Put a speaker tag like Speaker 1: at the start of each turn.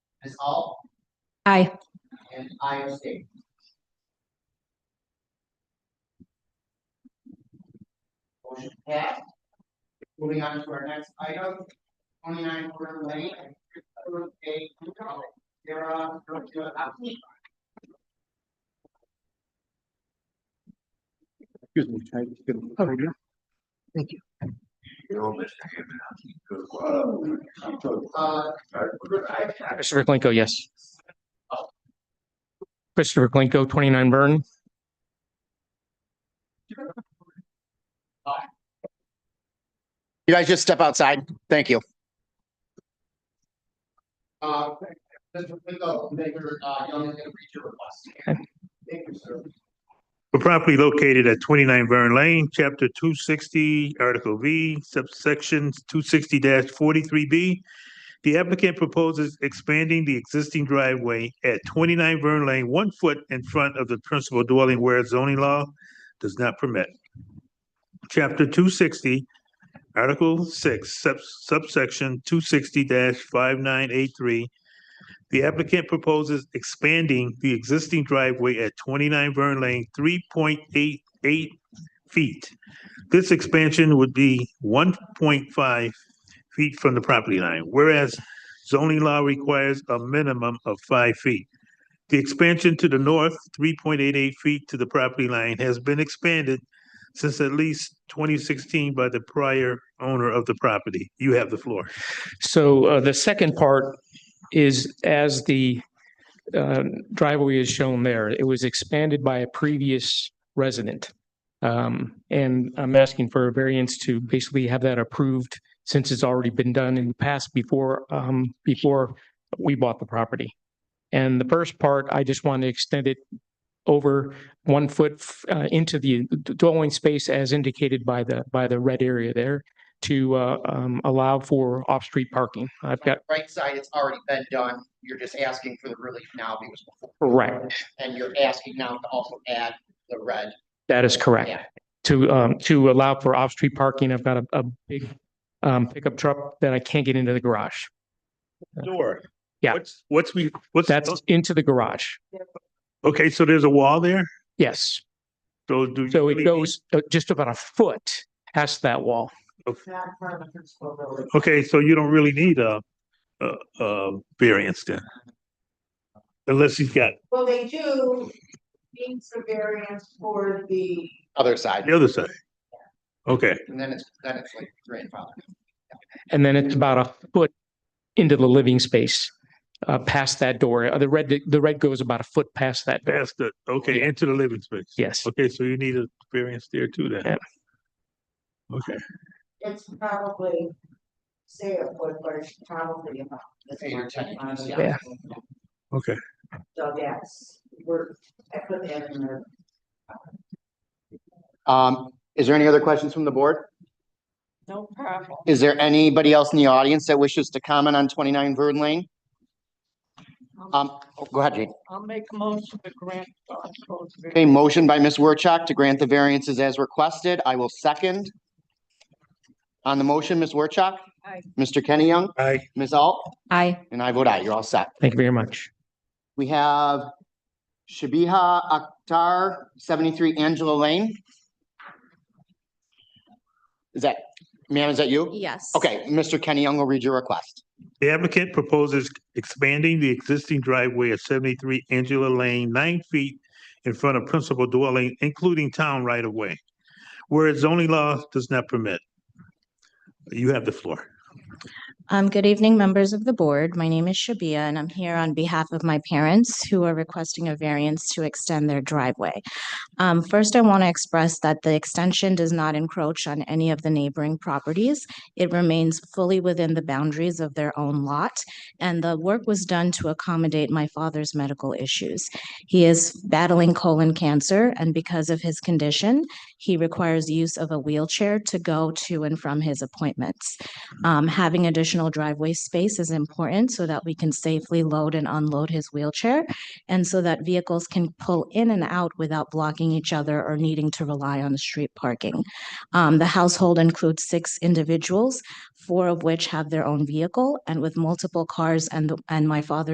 Speaker 1: Ms. Hall,
Speaker 2: Aye.
Speaker 1: and I abstain. Motion passed. Moving on to our next item, twenty-nine Porter Lane, and Christopher J. Kukoc, Sarah Georgia Hopkins.
Speaker 3: Excuse me, can I just get a photo here?
Speaker 1: Uh,
Speaker 4: Christopher Klinko, yes. Christopher Klinko, twenty-nine Burn.
Speaker 5: You guys just step outside. Thank you.
Speaker 1: uh, Mr. Pinto, Mayor, uh, Young is gonna read your request. Thank you, sir.
Speaker 6: The property located at twenty-nine Vern Lane, chapter two sixty, article V, subsection two sixty forty-three B. The applicant proposes expanding the existing driveway at twenty-nine Vern Lane, one foot in front of the principal dwelling where zoning law does not permit. Chapter two sixty, article six, sub- subsection two sixty five nine eight three, the applicant proposes expanding the existing driveway at twenty-nine Vern Lane, three point eight eight feet. This expansion would be one point five feet from the property line, whereas zoning law requires a minimum of five feet. The expansion to the north, three point eight eight feet to the property line, has been expanded since at least twenty sixteen by the prior owner of the property. You have the floor.
Speaker 4: So uh, the second part is as the uh, driveway is shown there, it was expanded by a previous resident. Um, And I'm asking for a variance to basically have that approved since it's already been done in the past before, um, before we bought the property. And the first part, I just want to extend it over one foot uh, into the dwelling space as indicated by the, by the red area there to uh, um, allow for off-street parking. I've got,
Speaker 1: Right side, it's already been done, you're just asking for the relief now because before.
Speaker 4: right,
Speaker 1: And you're asking now to also add the red.
Speaker 4: that is correct.
Speaker 1: Yeah.
Speaker 4: To, um, to allow for off-street parking, I've got a, a big um, pickup truck that I can't get into the garage.
Speaker 6: Door.
Speaker 4: Yeah.
Speaker 6: What's, what's we, what's?
Speaker 4: That's into the garage.
Speaker 6: Okay, so there's a wall there?
Speaker 4: Yes.
Speaker 6: So do. you
Speaker 4: So
Speaker 6: really
Speaker 4: it
Speaker 6: need-
Speaker 4: goes uh, just about a foot past that wall.
Speaker 6: Okay, so you don't really need a, a, a variance then. Unless he's got
Speaker 7: Well, they do need some variance for the,
Speaker 5: Other side.
Speaker 6: the other side. Okay,
Speaker 1: And then it's, then it's like grandfather.
Speaker 4: And then it's about a foot into the living space, uh, past that door. Uh, The red, the red goes about a foot past that. door.
Speaker 6: past the, okay, into the living space.
Speaker 4: Yes.
Speaker 6: Okay, so you need a variance there too then.
Speaker 4: Yeah.
Speaker 6: Okay,
Speaker 7: it's probably, say a foot, but it's probably about. this
Speaker 1: Eight or
Speaker 7: much.
Speaker 1: ten inches,
Speaker 7: Yeah.
Speaker 4: yeah.
Speaker 6: okay.
Speaker 7: So that's, we're, I put that in there.
Speaker 5: Um, is there any other questions from the board?
Speaker 7: No problem.
Speaker 5: Is there anybody else in the audience that wishes to comment on twenty-nine Vern Lane? Um, oh, go ahead, Jane.
Speaker 7: I'll make a motion to grant. Bosco's variance.
Speaker 5: Okay, motion by Ms. Werchak to grant the variances as requested. I will second. On the motion, Ms. Werchak?
Speaker 7: Aye.
Speaker 5: Mr. Kenny Young?
Speaker 6: I,
Speaker 5: Ms. Alt?
Speaker 2: Aye.
Speaker 5: And I vote aye. You're all set.
Speaker 4: Thank you very much.
Speaker 5: We have Shabiha Akhtar, seventy-three Angela Lane. Is that, ma'am, is that you?
Speaker 8: Yes.
Speaker 5: Okay, Mr. Kenny Young will read your request.
Speaker 6: the applicant proposes expanding the existing driveway at seventy-three Angela Lane, nine feet in front of principal dwelling, including town right of way, whereas zoning law does not permit. You have the floor.
Speaker 8: Um, good evening, members of the board. My name is Shabia and I'm here on behalf of my parents who are requesting a variance to extend their driveway. Um, first, I want to express that the extension does not encroach on any of the neighboring properties. It remains fully within the boundaries of their own lot and the work was done to accommodate my father's medical issues. He is battling colon cancer and because of his condition, he requires use of a wheelchair to go to and from his appointments. Um, having additional driveway space is important so that we can safely load and unload his wheelchair and so that vehicles can pull in and out without blocking each other or needing to rely on street parking. Um, the household includes six individuals, four of which have their own vehicle and with multiple cars and, the- and my father